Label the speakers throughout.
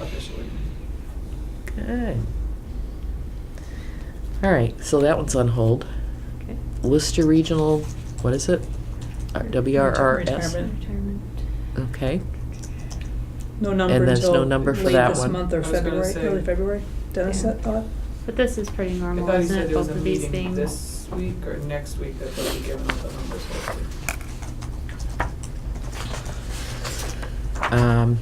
Speaker 1: officially.
Speaker 2: Okay. All right, so that one's on hold.
Speaker 3: Okay.
Speaker 2: Lister Regional, what is it? R- WRRS?
Speaker 3: Retirement.
Speaker 2: Okay,
Speaker 3: No number
Speaker 2: And
Speaker 3: until.
Speaker 2: there's no number for that one.
Speaker 3: Late this month
Speaker 1: I
Speaker 3: or
Speaker 1: was gonna
Speaker 3: February,
Speaker 1: say-
Speaker 3: early February, Dennis,
Speaker 4: Yeah.
Speaker 3: that thought?
Speaker 4: But this is pretty
Speaker 1: I
Speaker 4: normal,
Speaker 1: thought you
Speaker 4: isn't
Speaker 1: said
Speaker 4: it,
Speaker 1: there was
Speaker 4: both
Speaker 1: a
Speaker 4: of these
Speaker 1: meeting
Speaker 4: things?
Speaker 1: this week or next week that they'll be giving out the numbers hopefully.
Speaker 2: um,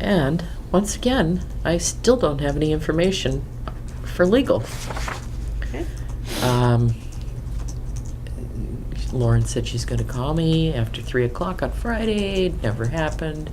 Speaker 2: and, once again, I still don't have any information for legal.
Speaker 4: Okay.
Speaker 2: Um, Lauren said she's gonna call me after three o'clock on Friday, It never happened.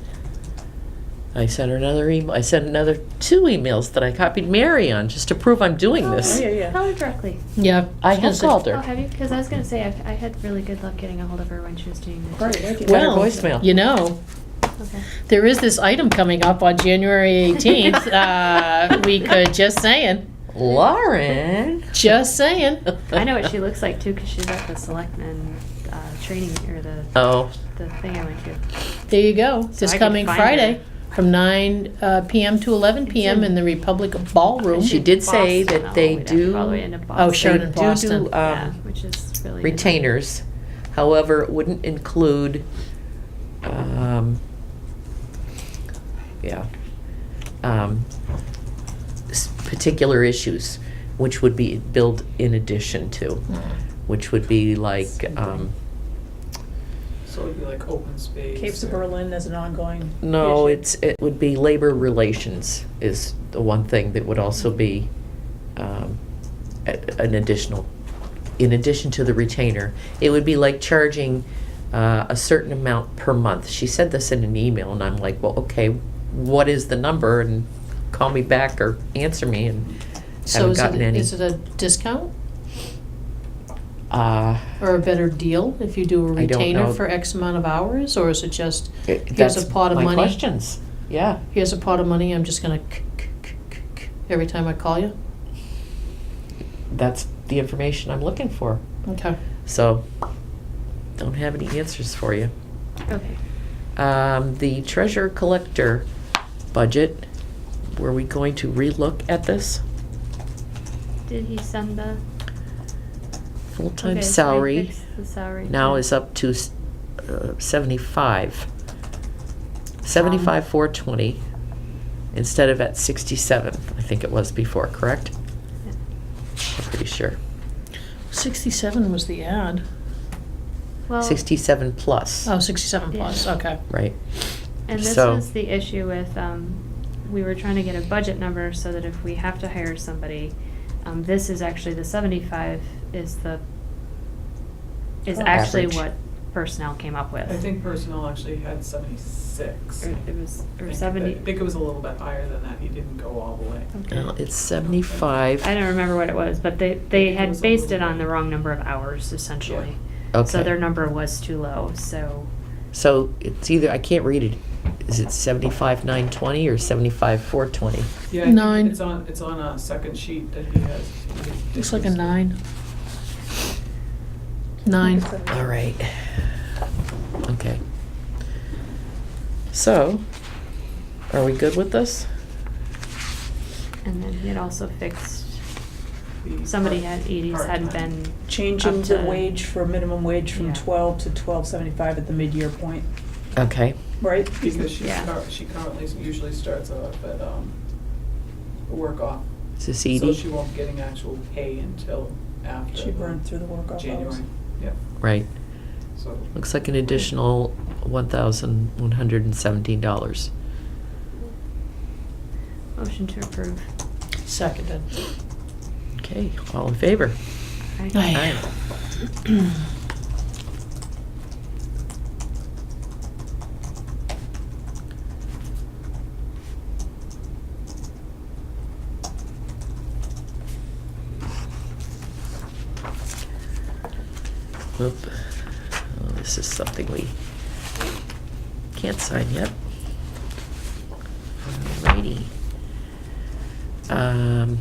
Speaker 2: I sent her another email, I sent another two emails that I copied Mary on, just to prove I'm doing this.
Speaker 3: Oh, yeah, yeah.
Speaker 4: Call her directly.
Speaker 2: Yeah, I have called
Speaker 4: Oh, have
Speaker 2: her.
Speaker 4: you? Because I was gonna say, I, I had really good luck getting a hold of her when she was doing this.
Speaker 3: Right, I can-
Speaker 2: Well,
Speaker 3: Better
Speaker 2: voicemail.
Speaker 5: You know,
Speaker 4: Okay.
Speaker 5: there is this item coming up on January 18th. Uh, we could, just saying,
Speaker 2: Lauren?
Speaker 5: just saying.
Speaker 4: I know what she looks like too, because she's at the selectmen, uh, training, or the,
Speaker 2: Oh,
Speaker 4: the thing I went to.
Speaker 5: There you go,
Speaker 4: So I
Speaker 5: this
Speaker 4: could
Speaker 5: coming
Speaker 4: find her.
Speaker 5: Friday from 9 uh, PM to 11 PM in the Republic Ballroom.
Speaker 2: She did say
Speaker 4: Boston,
Speaker 2: that
Speaker 4: though.
Speaker 2: they
Speaker 4: We'd have to go
Speaker 2: do-
Speaker 4: all the way into Boston.
Speaker 5: Oh, sure, in
Speaker 2: They do do,
Speaker 5: Boston.
Speaker 4: Yeah,
Speaker 2: um,
Speaker 4: which is really. good.
Speaker 2: retainers. However, it wouldn't include, um, yeah, um, s- particular issues, which would be billed in addition to,
Speaker 5: Hmm.
Speaker 2: which would be like, um,
Speaker 1: So it'd be like open space.
Speaker 3: Capes of
Speaker 1: or-
Speaker 3: Berlin as an ongoing.
Speaker 2: no,
Speaker 3: issue.
Speaker 2: it's, it would be labor relations is the one thing that would also be, um, a- an additional, in addition to the retainer, it would be like charging uh, a certain amount per month. She said this in an email, and I'm like, well, okay, what is the number? And call me back or answer me. And
Speaker 5: So is
Speaker 2: gotten
Speaker 5: it,
Speaker 2: any.
Speaker 5: is it a discount
Speaker 2: uh,
Speaker 5: or a better deal if you do a
Speaker 2: I don't know.
Speaker 5: retainer for X amount of hours? Or is it just,
Speaker 2: it-
Speaker 5: Here's
Speaker 2: that's
Speaker 5: a pot of
Speaker 2: my
Speaker 5: money.
Speaker 2: questions. Yeah.
Speaker 5: here's a pot of money, I'm just gonna k- k- k- k- k every time I call you?
Speaker 2: That's the information I'm looking for.
Speaker 5: Okay.
Speaker 2: So, don't have any answers for you.
Speaker 4: Okay.
Speaker 2: Um, the treasurer collector budget, were we going to relook at this?
Speaker 4: Did he send the?
Speaker 2: Full-time
Speaker 4: okay, so I
Speaker 2: salary.
Speaker 4: fixed The salary.
Speaker 2: now
Speaker 4: too.
Speaker 2: is up to s- uh, 75. 75, 420, instead of at 67, I think it was before, correct?
Speaker 4: Yeah.
Speaker 2: I'm pretty sure.
Speaker 5: Sixty-seven was the ad.
Speaker 4: Well,
Speaker 2: 67 plus,
Speaker 5: Oh, 67 plus,
Speaker 4: Yeah.
Speaker 5: okay.
Speaker 2: right?
Speaker 4: And this
Speaker 2: So-
Speaker 4: was the issue with, um, we were trying to get a budget number so that if we have to hire somebody, um, this is actually, the seventy-five is the, is
Speaker 3: Oh.
Speaker 4: actually
Speaker 2: Average.
Speaker 4: what personnel came up with.
Speaker 1: I think personnel actually had seventy-six.
Speaker 4: Or it was,
Speaker 1: I
Speaker 4: or
Speaker 1: think
Speaker 4: seventy,
Speaker 1: that- I think it was a little bit higher than that, he didn't go all the way.
Speaker 2: Well,
Speaker 4: okay.
Speaker 2: it's 75.
Speaker 4: I don't remember what it was, but they, they
Speaker 1: it
Speaker 4: had
Speaker 1: was a
Speaker 4: based it
Speaker 1: little
Speaker 4: on
Speaker 1: bit.
Speaker 4: the wrong number of hours essentially. So
Speaker 2: Okay.
Speaker 4: their number was too low, so,
Speaker 2: So it's either, I can't read it. Is it 75, 920 or 75, 420?
Speaker 1: Yeah, I think
Speaker 5: Nine.
Speaker 1: It's on, it's on a second sheet that he has.
Speaker 5: Looks like a nine. Nine.
Speaker 2: All right. Okay. So, are we good with this?
Speaker 4: and then he had also fixed,
Speaker 1: The
Speaker 4: somebody
Speaker 1: part-
Speaker 4: had, EDs hadn't
Speaker 1: part-time.
Speaker 4: been
Speaker 3: Changing
Speaker 4: up
Speaker 3: the
Speaker 4: to-
Speaker 3: wage for minimum wage
Speaker 4: Yeah.
Speaker 3: from twelve to twelve seventy-five at the mid-year point,
Speaker 2: Okay.
Speaker 3: right?
Speaker 1: Because she,
Speaker 4: Yeah.
Speaker 1: cur- she currently usually starts off at, um, work off.
Speaker 2: Is this
Speaker 1: So
Speaker 2: Edie?
Speaker 1: she won't be getting actual pay until after.
Speaker 3: She burned through the work off hours.
Speaker 1: January, yeah,
Speaker 2: Right.
Speaker 1: so.
Speaker 2: Looks like an additional one thousand one hundred and seventeen dollars.
Speaker 4: motion to approve.
Speaker 5: Seconded.
Speaker 2: Okay, all in favor?
Speaker 4: Aye.
Speaker 5: Aye.
Speaker 2: Whoop. Oh, this is something we can't sign yet. Alrighty. Um.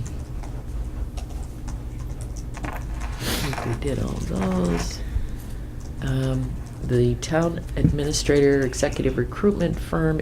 Speaker 2: I think we did all those. Um, the town administrator executive recruitment firm